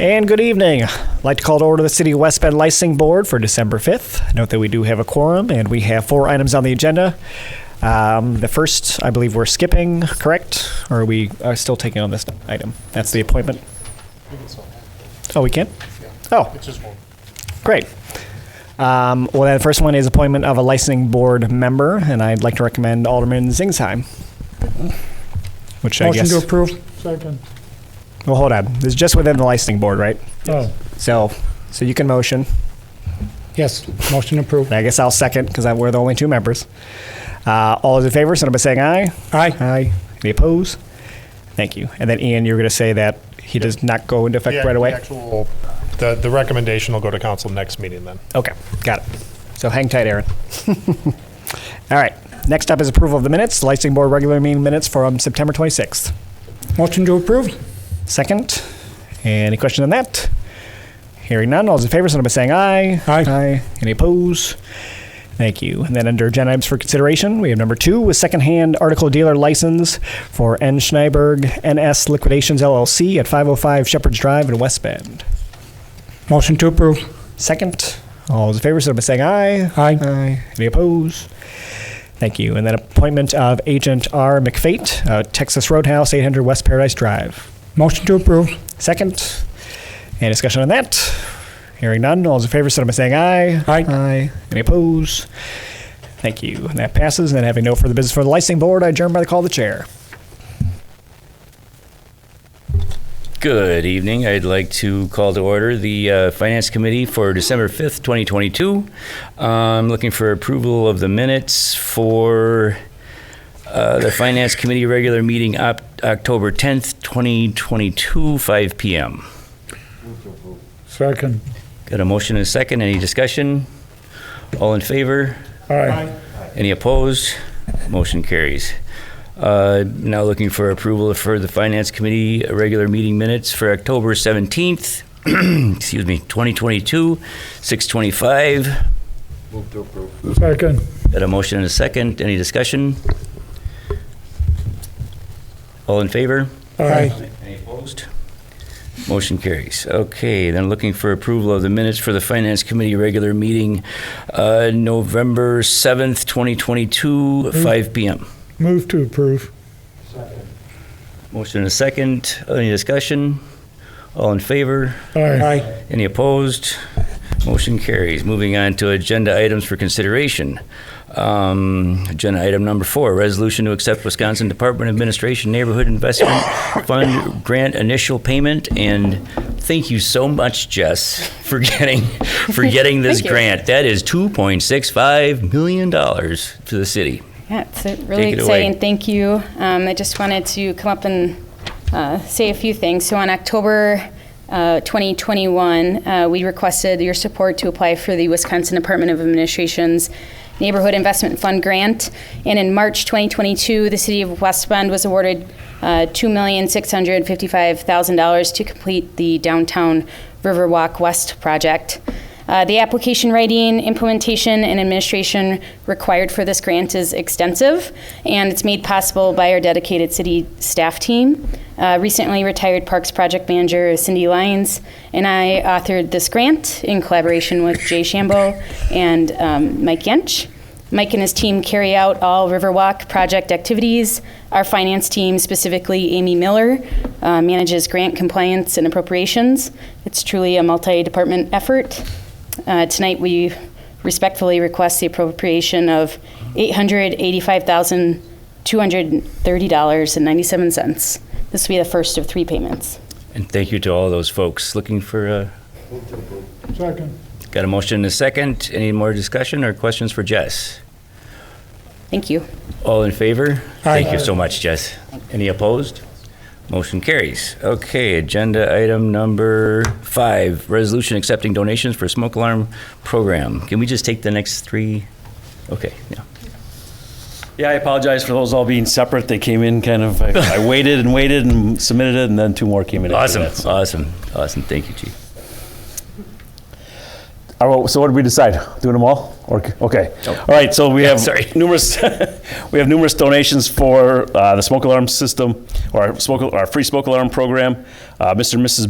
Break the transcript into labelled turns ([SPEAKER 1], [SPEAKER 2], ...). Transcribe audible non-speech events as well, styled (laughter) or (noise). [SPEAKER 1] And good evening. I'd like to call to order the City of West Bend Licensing Board for December 5th. Note that we do have a quorum and we have four items on the agenda. Um, the first, I believe we're skipping, correct? Or are we uh, still taking on this item? That's the appointment. Oh, we can? Oh,
[SPEAKER 2] It's just one.
[SPEAKER 1] Great. Um, well, then the first one is appointment of a licensing board member, and I'd like to recommend Alderman Zingsheim. Which I
[SPEAKER 3] Motion
[SPEAKER 1] guess.
[SPEAKER 3] to approve.
[SPEAKER 2] Second.
[SPEAKER 1] well, hold on. This is just within the licensing board, right?
[SPEAKER 3] Oh,
[SPEAKER 1] So, so you can motion.
[SPEAKER 3] yes, motion approved.
[SPEAKER 1] And I guess I'll second because we're the only two members. Uh, all those in favor, send up by saying aye.
[SPEAKER 3] Aye.
[SPEAKER 1] Aye. Any opposed? Thank you. And then Ian, you're going to say that he does not go into effect right away.
[SPEAKER 2] The, actual- the the recommendation will go to council next meeting then.
[SPEAKER 1] Okay, got it. So hang tight, Aaron. (laughs) All right. Next up is approval of the minutes, licensing board regular meeting minutes from September 26th.
[SPEAKER 3] Motion to approve.
[SPEAKER 1] Second, any questions on that? Hearing none, all those in favor, signify by saying aye.
[SPEAKER 3] Aye.
[SPEAKER 1] Aye. Any opposed? Thank you. And then under agenda items for consideration, we have number two with secondhand article dealer license for N. Schneiberg NS Liquidations LLC at 505 Shepherd's Drive in West Bend.
[SPEAKER 3] Motion to approve.
[SPEAKER 1] Second, all those in favor, signify by saying aye.
[SPEAKER 3] Aye.
[SPEAKER 1] Aye. Any opposed? Thank you. And then appointment of Agent R. McFate, uh, Texas Roadhouse, 800 West Paradise Drive.
[SPEAKER 3] Motion to approve.
[SPEAKER 1] Second. Any discussion on that? Hearing none, all those in favor, signify by saying aye.
[SPEAKER 3] Aye.
[SPEAKER 1] Aye. Any opposed? Thank you. And that passes. And having no further business for the licensing board, I adjourn by the call of the chair.
[SPEAKER 4] Good evening. I'd like to call to order the uh, Finance Committee for December 5th, 2022. I'm looking for approval of the minutes for uh, the Finance Committee regular meeting op- October 10th, 2022, 5 p.m.
[SPEAKER 3] Second.
[SPEAKER 4] Got a motion and a second. Any discussion? All in favor?
[SPEAKER 3] Aye.
[SPEAKER 4] Any opposed? Motion carries. Uh, Now looking for approval for the Finance Committee uh, regular meeting minutes for October 17th, (clears throat) excuse me, 2022, 6:25.
[SPEAKER 3] Second.
[SPEAKER 4] Got a motion and a second. Any discussion? All in favor?
[SPEAKER 3] Aye.
[SPEAKER 4] Any opposed? Motion carries. Okay, then looking for approval of the minutes for the Finance Committee regular meeting, uh, November 7th, 2022, 5 PM.
[SPEAKER 3] Move to approve.
[SPEAKER 4] Motion and a second. Any discussion? All in favor?
[SPEAKER 3] Aye.
[SPEAKER 4] Any opposed? Motion carries. Moving on to agenda items for consideration. Um, Agenda item number four, resolution to accept Wisconsin Department of Administration Neighborhood Investment Fund Grant Initial Payment. And thank you so much, Jess, for getting, for getting this grant. That is $2.65 million to the city.
[SPEAKER 5] Yeah, it's uh, really
[SPEAKER 4] Take it away.
[SPEAKER 5] exciting. Thank you. Um, I just wanted to come up and uh, say a few things. So on October uh, 2021, uh, we requested your support to apply for the Wisconsin Department of Administration's Neighborhood Investment Fund grant. And in March 2022, the City of West Bend was awarded uh, $2,655,000 to complete the downtown Riverwalk West project. Uh, the application writing, implementation, and administration required for this grant is extensive, and it's made possible by our dedicated city staff team. Uh, recently retired Parks Project Manager Cindy Lyons and I authored this grant in collaboration with Jay Shambo and um, Mike Yench. Mike and his team carry out all Riverwalk project activities. Our finance team, specifically Amy Miller, uh, manages grant compliance and appropriations. It's truly a multi department effort. Uh, tonight, we respectfully request the appropriation of $885,230.97. This will be the first of three payments.
[SPEAKER 4] And thank you to all those folks. Looking for a,
[SPEAKER 3] Second.
[SPEAKER 4] got a motion and a second. Any more discussion or questions for Jess?
[SPEAKER 5] Thank you.
[SPEAKER 4] All in favor?
[SPEAKER 3] Aye.
[SPEAKER 4] Thank you so much, Jess. Any opposed? Motion carries. Okay, agenda item number five, resolution accepting donations for smoke alarm program. Can we just take the next three? Okay, yeah.
[SPEAKER 6] Yeah, I apologize for those all being separate. They came in kind of, I
[SPEAKER 4] (laughs)
[SPEAKER 6] I waited and waited and submitted it, and then two more came in. after
[SPEAKER 4] Awesome,
[SPEAKER 6] that, so.
[SPEAKER 4] awesome, awesome. Thank you, Chief.
[SPEAKER 6] All right, well, so what did we decide? Doing them all? Or, okay.
[SPEAKER 4] Nope.
[SPEAKER 6] All right, so we have
[SPEAKER 4] sorry.
[SPEAKER 6] (laughs) numerous, we have numerous donations for uh, the smoke alarm system, or our smoke, our free smoke alarm program. Uh, Mr. and Mrs.